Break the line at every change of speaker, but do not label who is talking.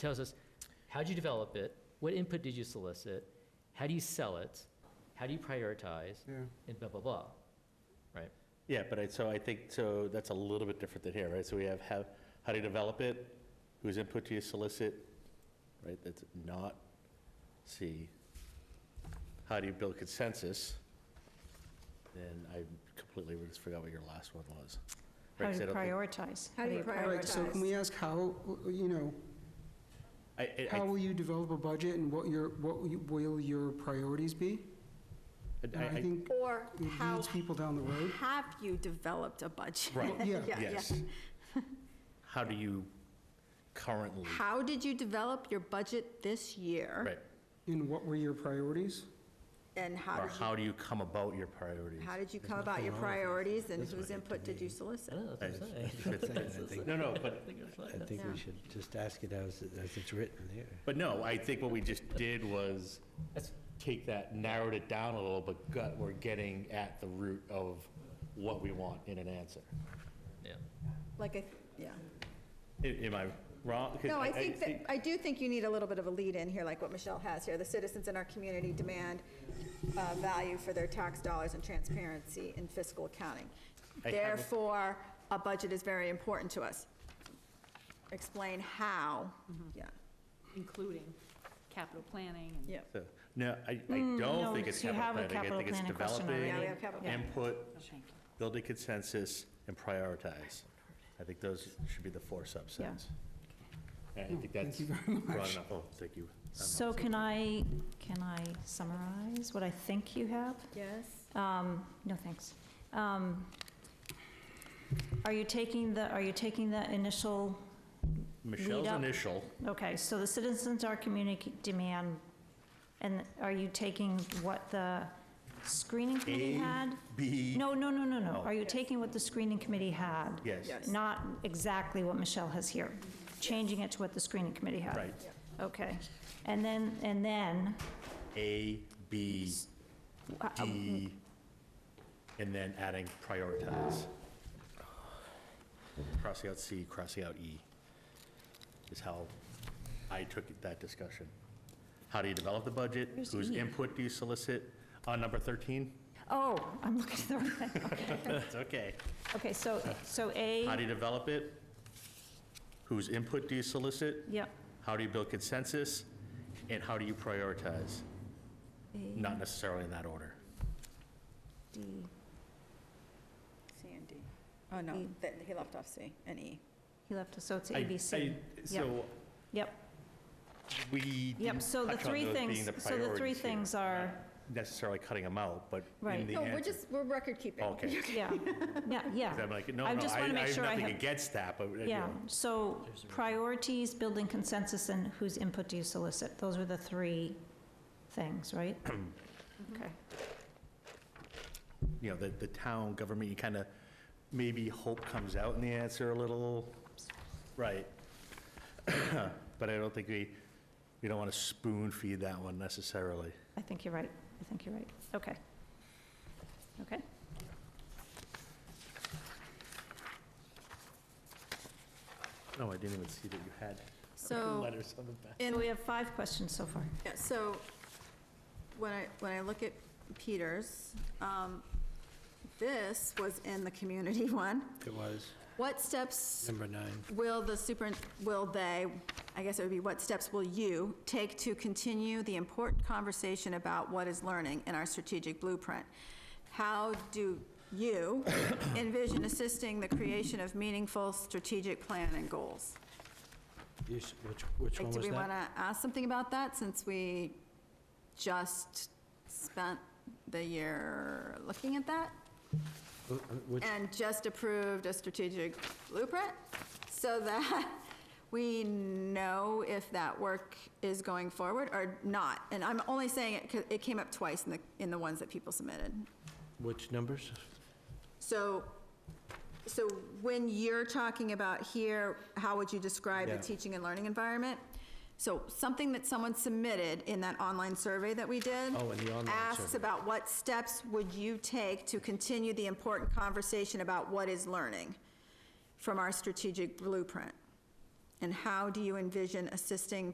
tells us, how'd you develop it? What input did you solicit? How do you sell it? How do you prioritize?
Yeah.
And blah, blah, blah. Right?
Yeah, but I, so I think, so that's a little bit different than here, right? So we have how, how do you develop it? Whose input do you solicit? Right, that's not C. How do you build consensus? And I completely just forgot what your last one was. Right,
How
'cause
do
I
you
don't think-
prioritize?
How do you
Right, so can we ask how, you know,
I, I-
how will you develop a budget and what your, what you- will your priorities be? And
I, I,
I
I,
think
Or
it
how
leads people down the road.
have you developed a budget?
Right.
Yeah.
yes. How do you currently,
How did you develop your budget this year?
right?
And what were your priorities?
And how
Or
did you,
how do you come about your priorities?
how did you come about your priorities and whose input did you
I
solicit?
don't know, that's what I'm saying.
No, no, but,
I think it's
I
like-
think
Yeah.
we should just ask it as, as it's written there.
but no, I think what we just did was
that's-
take that, narrowed it down a little, but got, we're getting at the root of what we want in an answer.
Yeah.
Like, I- yeah.
A- Am I wrong? 'Cause
No, I think that, I do think you need a little bit of a lead in here, like what Michelle has here. The citizens in our community demand uh, value for their tax dollars and transparency in fiscal accounting.
I have a-
Therefore, a budget is very important to us. Explain how, yeah.
including capital planning and.
Yep.
So, No, I, I don't
Mm, no,
think it's
you have
capital
a
planning. I
capital
think it's
planning question
developing,
Yeah, we have capital.
input,
Thank you.
build a consensus, and prioritize. I think those should be the four subsets. And I think that's broad enough. Oh, thank you. I'm
So can I, can I summarize what I think you have?
Yes.
Um, No, thanks. Um, Are you taking the, are you taking the initial,
Michelle's
up.
initial,
okay, so the citizens are communicating demand, and are you taking what the screening committee
A,
had?
B,
No, no, no, no, no.
Oh.
Are you taking what the screening committee had?
yes,
Yes.
Not exactly what Michelle has here, changing it to what the screening committee had?
right.
Okay. And then, and then,
A, B,
uh, hmm. uh,
D, and then adding prioritize. Crossing out C, crossing out E is how I took that discussion. How do you develop the budget?
Where's
Whose
E?
input do you solicit? On number 13?
oh, I'm looking at the wrong thing.
That's okay.
Okay, so, so
Uh, How do you
A,
develop it? Whose input do you solicit?
yep,
How do you build consensus? And how do you prioritize? Not necessarily in that order.
D,
C and D. Oh, no,
E.
that- he left off C and E.
he left us, so it's A,
I-
B, C.
I-
Yep,
So
Yep,
we
yep,
didn't
so the
touch on
three
those being
things,
the
so the three
priorities here.
things are,
necessarily cutting them out, but in
Right.
the
No, we're
answer.
just, we're record keeping.
Okay.
yeah, yeah, yeah.
'Cause I'm like, no,
I
no,
just
I
wanna
I
make
have
sure I
nothing
have-
against that, but. you
Yeah,
know,
so priorities, building consensus, and whose input do you solicit? Those were the three things, right? Okay,
You know, the, the town government, you kind of, maybe hope comes out in the answer a little, right? But I don't think we, we don't want to spoon feed that one necessarily.
I think you're right, I think you're right, okay. Okay,
No, Oh, I didn't even see that you had
So,
letters on the back.
in
so we have five questions so far.
Yeah, so when I, when I look at Peter's, um, this was in the community one.
It was
What steps
number nine.
will the super, will they, I guess it would be what steps will you take to continue the important conversation about what is learning in our strategic blueprint? How do you envision assisting the creation of meaningful strategic plan and goals?
You s- Which, which
Like,
one
do
was
we want
that?
to ask something about that since we just spent the year looking at that?
Uh, uh, Which,
And just approved a strategic blueprint so that we know if that work is going forward or not. And I'm only saying it because it came up twice in the, in the ones that people submitted.
which numbers?
So, so when you're talking about here, how would you describe the
Yeah.
teaching and learning environment? So something that someone submitted in that online survey that we did.
Oh, in the online
Asks
survey.
about what steps would you take to continue the important conversation about what is learning from our strategic blueprint? And how do you envision assisting